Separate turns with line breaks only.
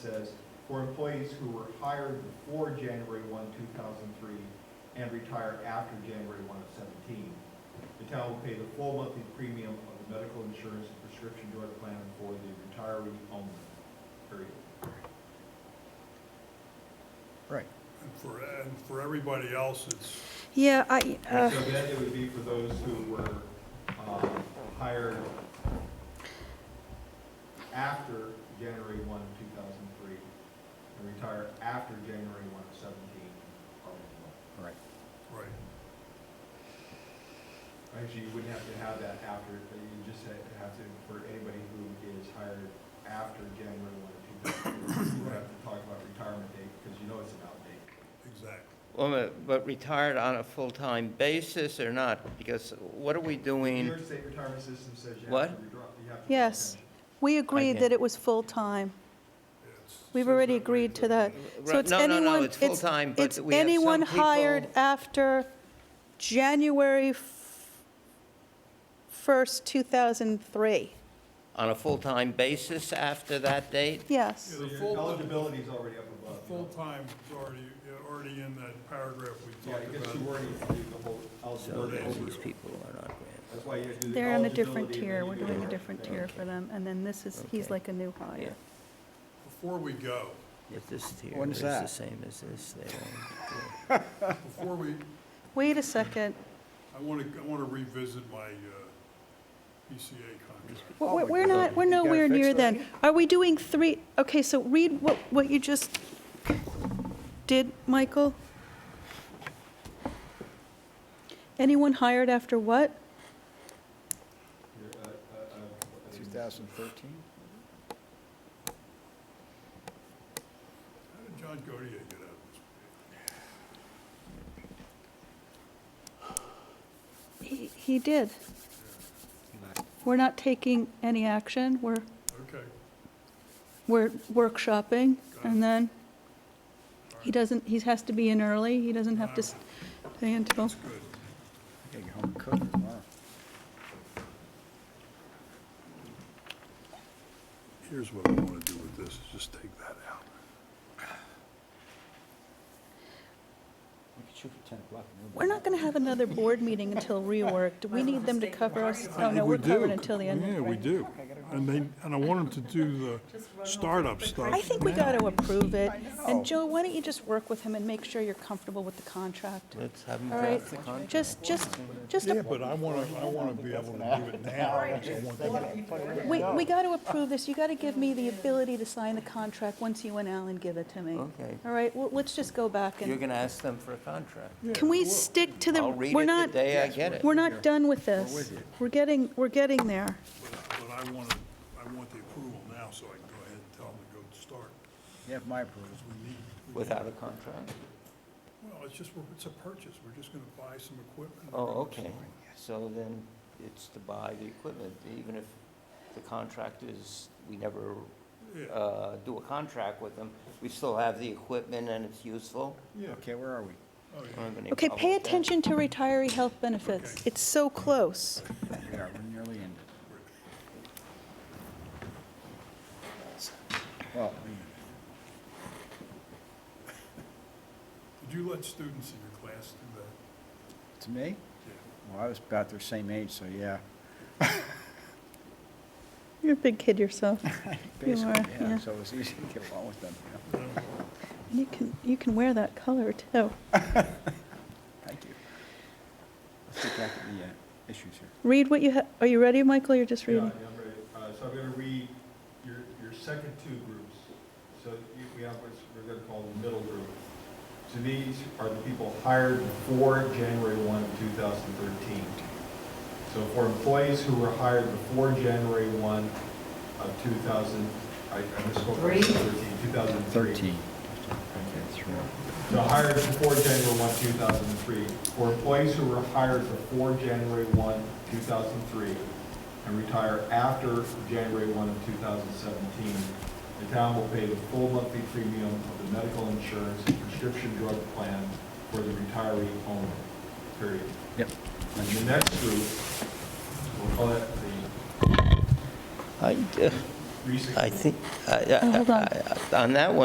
says, for employees who were hired before January 1, 2003, and retire after January 1 of 17. The town will pay the full monthly premium of the medical insurance and prescription drug plan for the retiree only, period.
Right.
And for, and for everybody else, it's,
Yeah, I,
So
uh,
then it would be for those who were um, hired after January 1, 2003, and retire after January 1 of 17, are eligible.
Right.
right,
Actually, you wouldn't have to have that after, but you just have to have to, for anybody who is hired after January one, two thousand, you would have to talk about retirement date, because you know it's an out date.
exactly.
Well, but retired on a full-time basis or not? Because what are we
New
doing?
York State retirement system says you have
What?
to withdraw, you have to.
yes, we agreed that it was full-time.
It's-
We've already agreed to that. So it's
No, no, no,
anyone-
it's full-time, but
it's
we have some
anyone
people-
hired after January f- 1st, 2003,
On a full-time basis after that date?
yes.
So
The
your
full-
eligibility's already up
the
above. you know.
Full-time is already, already in that paragraph we
Yeah, I
talked
guess you
about.
already do the whole
So all
eligibility.
these people are not grants.
That's why you have to do the eligibility.
They're on a different
and then
tier,
you uh,
we're
do
doing a
the-
different tier for them, and then this is, he's
Okay.
like a new hire.
Before we go,
If this tier
When's
is
that?
the same as this, they won't.
before we,
Wait a second,
I want to, I want to revisit my uh, PCA contract.
Oh,
we're
my
we're
God.
not, we're
You gotta
nowhere
fix
near
that.
then. Are we doing three, okay, so read what, what you just did, Michael? Anyone hired after what?
Your, uh, uh, uh,
2013?
How did John Godier get out of this?
He he did. We're not taking any action, we're,
Okay,
we're workshopping, and then he doesn't, he has to be in early, he doesn't have to stay until,
that's good.
I gotta get home and cook tomorrow.
Here's what I want to do with this, is just take that out.
We could shoot for 10 o'clock. and we'll be
we're not
back.
going to have another board meeting until reworked. We need them to cover us,
I
oh
think
no,
we
we're covered
do.
until the end.
Yeah, we do. And they, and I want them to do the startup stuff.
I think we got
now.
to approve it.
know.
And Joe, why don't you just work with him and make sure you're comfortable with the contract?
Let's have them
All right,
draft the contract.
just, just, just, a-
Yeah, but I want to, I want to be able to do it now. I don't want them-
we, we got to approve this. You got to give me the ability to sign the contract once you and Alan give it to me.
Okay.
All right, well, let's just go back
You're
and,
going to ask them for a contract.
can we stick to the,
I'll read
we're
it the
not,
day I get it.
we're not done with this.
with you.
We're getting, we're getting there.
But but I want to, I want the approval now, so I can go ahead and tell them to go start,
You have my approval.
because we need. we need-
Without a contract?
Well, it's just, we're- it's a purchase, we're just going to buy some equipment.
Oh, okay. So then it's to buy the equipment, even if the contract is, we never
Yeah,
uh, do a contract with them, we still have the equipment and it's useful.
yeah,
Okay, where are we?
oh,
I
yeah.
don't have any
Okay,
problem
pay
with that.
attention to retiree health benefits.
Okay.
It's so close.
We are, we're nearly ended. Well, we-
Did you let students in your class do that?
to me,
Yeah.
well, I was about their same age, so yeah.
You're a big kid yourself.
Basically,
are, yeah.
So it was easy to get along with them, you know.
And you can, you can wear that color too.
Thank you. Let's get back to the uh, issues here.
Read what you have, are you ready, Michael? You're just
Yeah,
reading?
I'm ready. Uh, So I'm going to read your, your second two groups. So you- we have what we're going to call the middle group. So these are the people hired before January 1, of 2013. So for employees who were hired before January 1 of 2000, I I misspoke,
Three.
2013, 2003.
13. Okay, three.
So hired before January 1, 2003, for employees who were hired before January 1, 2003, and retire after January 1 of 2017, the town will pay the full monthly premium of the medical insurance and prescription drug plan for the retiree only, period.
Yep.
And the next group, we'll call that the
I-
recent.
I think, I- I-
Oh, hold on.
I- on that one.